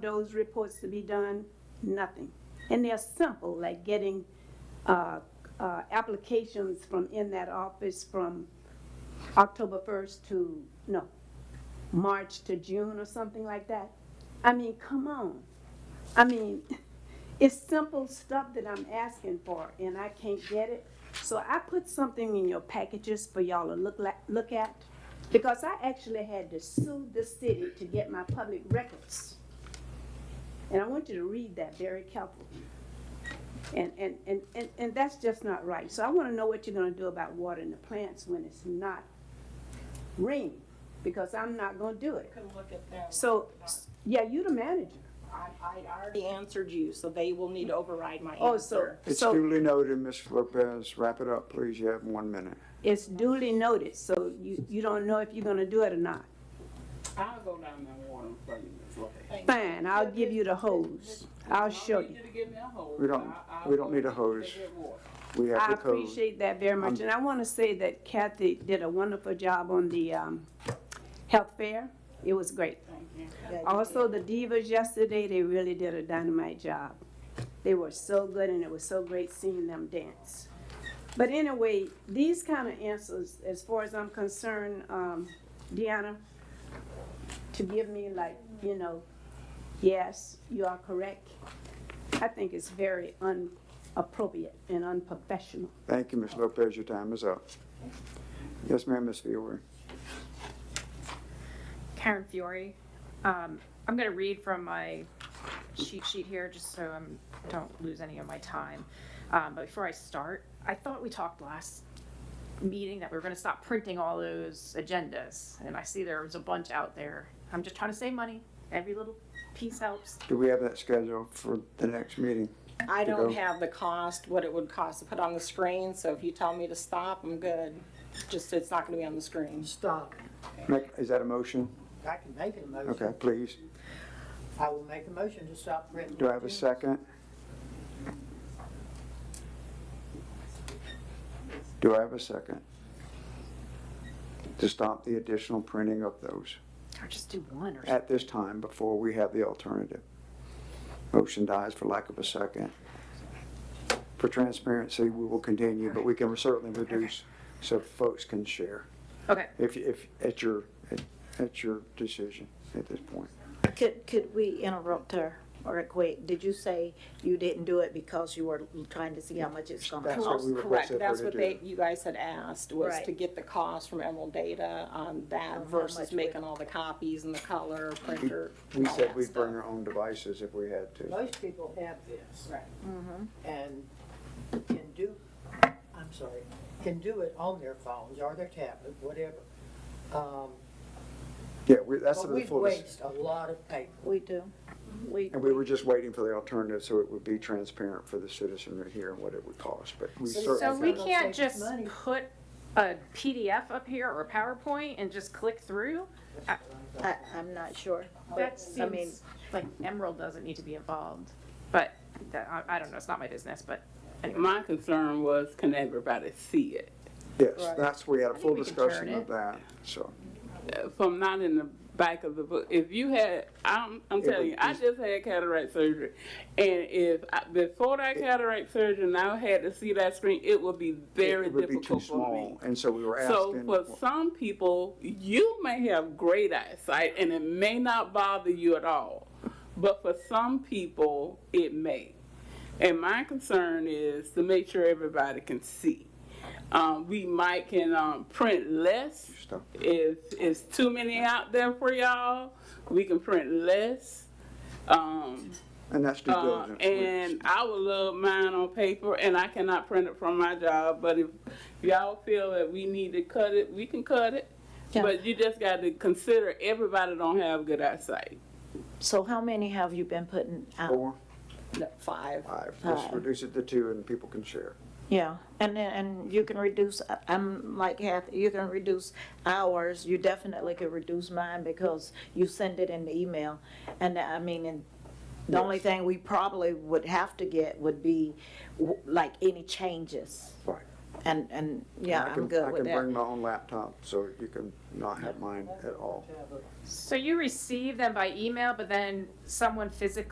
those reports to be done? Nothing. And they're simple, like getting uh, uh, applications from in that office from October 1st to, no, March to June or something like that. I mean, come on. I mean, it's simple stuff that I'm asking for and I can't get it. So I put something in your packages for y'all to look, la- look at because I actually had to sue the city to get my public records. And I want you to read that very carefully. And, and, and, and, and that's just not right. So I want to know what you're going to do about watering the plants when it's not raining because I'm not going to do it. can look at them. So, yeah, you the manager. I, I already answered you, so they will need to override my Oh, so, answer. It's so duly noted, Ms. Lopez. Wrap it up, please. You have one minute. it's duly noted, so you, you don't know if you're going to do it or not. I'll go down there and water them for you, Ms. Lopez. Fine, I'll give you the hose. I'll show you. I need to give me a hose. We don't- I- I'll we don't go need a get- hose. get water. We have I the code. appreciate that very much, and I want to say that Kathy did a wonderful job on the um, health fair. It was great. Also, the divas yesterday, they really did a dynamite job. They were so good, and it was so great seeing them dance. But anyway, these kind of answers, as far as I'm concerned, um, Deanna, to give me like, you know, yes, you are correct, I think it's very unappropriate and unprofessional. Thank you, Ms. Lopez. Your time is up. Yes, ma'am, Ms. Fiore. Karen Fiore. Um, I'm gonna read from my cheat sheet here, just so I'm, don't lose any of my time. Um, but before I start, I thought we talked last meeting that we were gonna stop printing all those agendas, and I see there was a bunch out there. I'm just trying to save money. Every little piece helps. Do we have that scheduled for the next meeting? I to don't go. have the cost, what it would cost to put on the screen, so if you tell me to stop, I'm good. Just, it's not gonna be on the screen. Stop. Make- Is that a motion? I can make it a motion. Okay, please. I will make a motion to stop printing. Do I have a second? Do I have a second? To stop the additional printing of those Or just do one or something. at this time before we have the alternative. Motion dies for lack of a second. For transparency, we will continue, but we can certainly reduce so folks can share Okay, if, if, at your, at- at your decision at this point. Could, could we interrupt her or quick? Did you say you didn't do it because you were trying to see how much it's gonna That's what cost? we Correct, requested her that's to what do. they, you guys had asked, was Right. to get the cost from Emerald Data on Of that how versus much we- making all the copies and the color printer. We all said that we'd stuff. bring our own devices if we had to. Most people have this. Right. And can do, I'm sorry, can do it on their phones or their tablet, whatever. Um, Yeah, we, that's But the we full, dis- waste a lot of paper. We do. We, and we were just waiting for the alternative so it would be transparent for the citizenry here and what it would cost, but we So- certainly. so we Gonna can't save us just money. put a PDF up here or a PowerPoint and just click through? I, I'm not sure. That I mean- seems like Emerald doesn't need to be involved, but that, I, I don't know, it's not my business, but anyway. My concern was, can everybody see it? Yes, that's, we had a think full we can discussion turn of that, so. Uh, From not in the back of the book, if you had, I'm, I'm It would telling you, I be- just had cataract surgery. And if, I- before that cataract surgery, and I had to see that screen, it would be very It would be too difficult for me. small, and so we were So asking. for some people, you may have great eyesight and it may not bother you at all. But for some people, it may. And my concern is to make sure everybody can see. Um, we might can um, print less. Stop. If it's too many out there for y'all, we can print less. Um, And that's due uh, diligence. We- and I would love mine on paper, and I cannot print it from my job, but if y'all feel that we need to cut it, we can cut it. Yeah. But you just got to consider everybody don't have good eyesight. So how many have you been putting out? Four, No, Five. five, let's Uh, Five. reduce it to two and people can share. Yeah, and then, and you can reduce, I- I'm like Kathy, you can reduce hours. You definitely could reduce mine because you send it in the email. And I mean, and the only thing we probably would have to get would be w- like any changes. Right. And, and, yeah, I I'm can- good with I can bring that. my own laptop, so you can not have mine at all. Tablet. So you receive them by email, but then someone physically